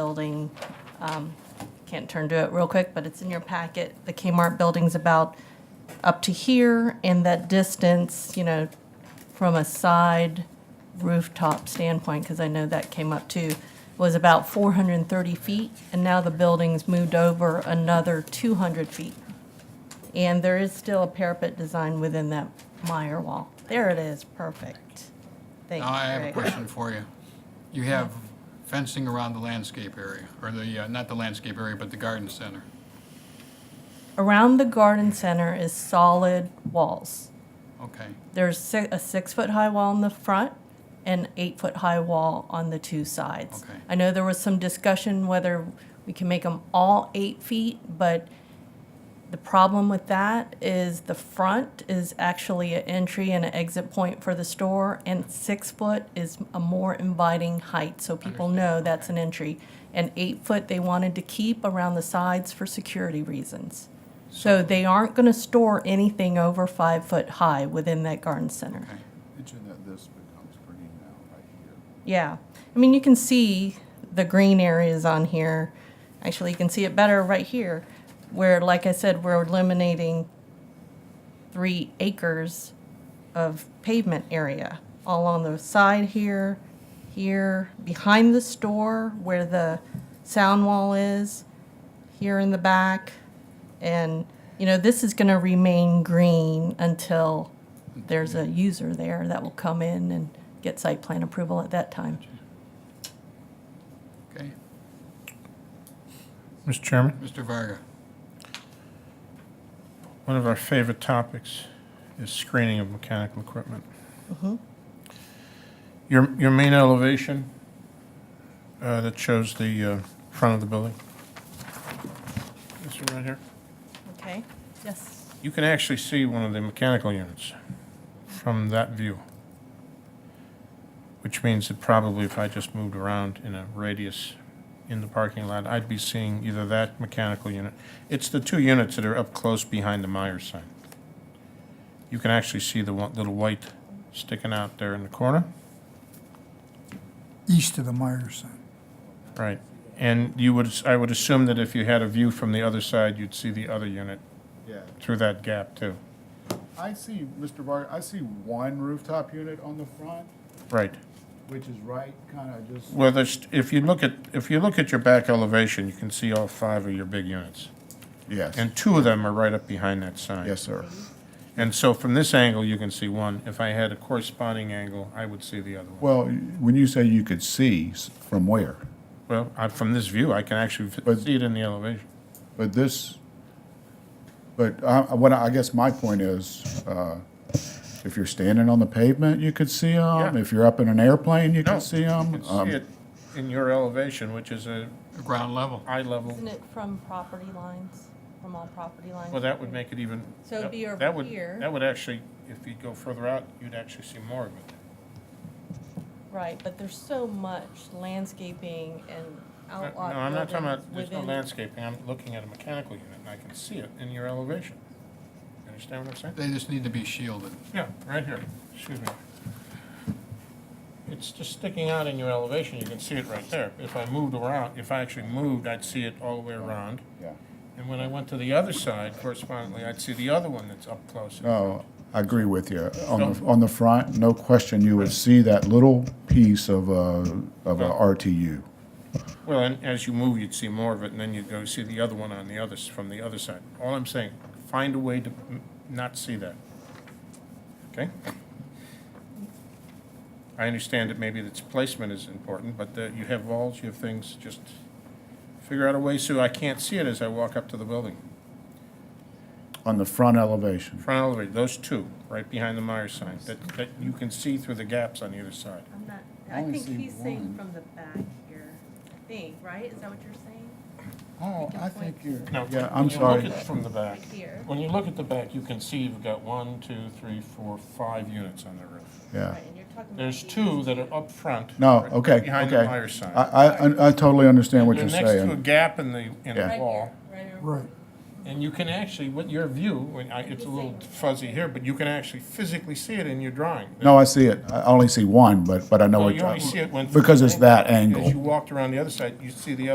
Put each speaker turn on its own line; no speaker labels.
building. um, Can't turn to it real quick, but it's in your packet. The Kmart building's about up to here, and that distance, you know, from a side rooftop standpoint, because I know that came up too, was about 430 feet, and now the building's moved over another 200 feet. And there is still a parapet design within that mire wall. There it is, perfect. Thank
Now, I have a
you, Greg.
question for you. You have fencing around the landscape area, or the, uh, not the landscape area, but the garden center.
Around the garden center is solid walls.
Okay,
There's si- a six foot high wall in the front and eight foot high wall on the two sides.
Okay.
I know there was some discussion whether we can make them all eight feet, but the problem with that is the front is actually an entry and an exit point for the store, and six foot is a more inviting height, so people know that's an entry. And eight foot they wanted to keep around the sides for security reasons. So they aren't going to store anything over five foot high within that garden center.
okay.
Imagine that this becomes green now, right here.
Yeah. I mean, you can see the green areas on here. Actually, you can see it better right here, where, like I said, we're eliminating three acres of pavement area all on the side here, here, behind the store where the sound wall is, here in the back. And, you know, this is going to remain green until there's a user there that will come in and get site plan approval at that time.
Okay,
Mr. Chairman,
Mr. Varga,
one of our favorite topics is screening of mechanical equipment. Your, your main elevation uh, that shows the uh, front of the building. This one right here.
Okay, yes.
You can actually see one of the mechanical units from that view. Which means that probably if I just moved around in a radius in the parking lot, I'd be seeing either that mechanical unit. It's the two units that are up close behind the Meyer sign. You can actually see the one, little white sticking out there in the corner.
east of the Meyer sign.
Right. And you would, I would assume that if you had a view from the other side, you'd see the other unit
Yeah,
through that gap too.
I see, Mr. Varga, I see one rooftop unit on the front,
Right.
which is right, kind of just,
Well, there's, if you look at, if you look at your back elevation, you can see all five of your big units.
yes,
And two of them are right up behind that sign.
yes, sir.
And so from this angle, you can see one. If I had a corresponding angle, I would see the other one.
Well, when you say you could see, s- from where?
Well, I, from this view, I can actually f-
But-
see it in the elevation.
But this, but I, I- what I I guess my point is, uh, if you're standing on the pavement, you could see them.
Yeah.
If you're up in an airplane, you
No,
could see Um,
You
them.
can see it in your elevation, which is a
the ground level.
eye level.
Isn't it from property lines, from all property lines?
Well, that would make it even.
So it'd be over
that would-
here.
That would actually, if you go further out, you'd actually see more of it.
Right, but there's so much landscaping and
Uh, No,
outlot
no, I'm not talking about,
buildings
there's no
within-
landscaping, I'm looking at a mechanical unit, and I can see it in your elevation. You Understand what I'm saying?
They just need to be shielded.
Yeah, right here, excuse me. It's just sticking out in your elevation, you can see it right there. If I moved around, if I actually moved, I'd see it all the way around.
Yeah.
And when I went to the other side correspondingly, I'd see the other one that's up close.
No, Oh, I agree with you. On the, on the front, no question, you would see that little piece of a, of a RTU.
Well, and as you move, you'd see more of it, and then you'd go see the other one on the other, s- from the other side. All I'm saying, find a way to m- not see that. Okay? I understand that maybe its placement is important, but that you have walls, you have things, just figure out a way so I can't see it as I walk up to the building.
On the front elevation,
Front elevator, those two, right behind the Meyer sign, that, that you can see through the gaps on either side.
I'm not,
I
I
only
think
see
he's saying
one.
from the back here, I think, right? Is that what you're saying?
Oh,
I think
you're.
No,
Yeah,
when
I'm
you
sorry.
look at- From the back.
Here.
When you look at the back, you can see you've got one, two, three, four, five units on the roof.
Yeah.
Right, and you're talking about
Uh, There's
the-
two that are up front.
No,
right
okay,
Behind the
okay.
fire
I,
sign.
I, I totally understand what you're
They're next to a
saying.
gap in the, in
Yeah.
the
Right
wall.
here, right here.
Right.
And you can actually, with your view, when I, it's a little fuzzy here, but you can actually physically see it in your drawing.
No, I see it. I only see one, but, but I know
So
what
Oh, you
you're
only see it when.
Because it's that angle.
As you walked around the other side, you see the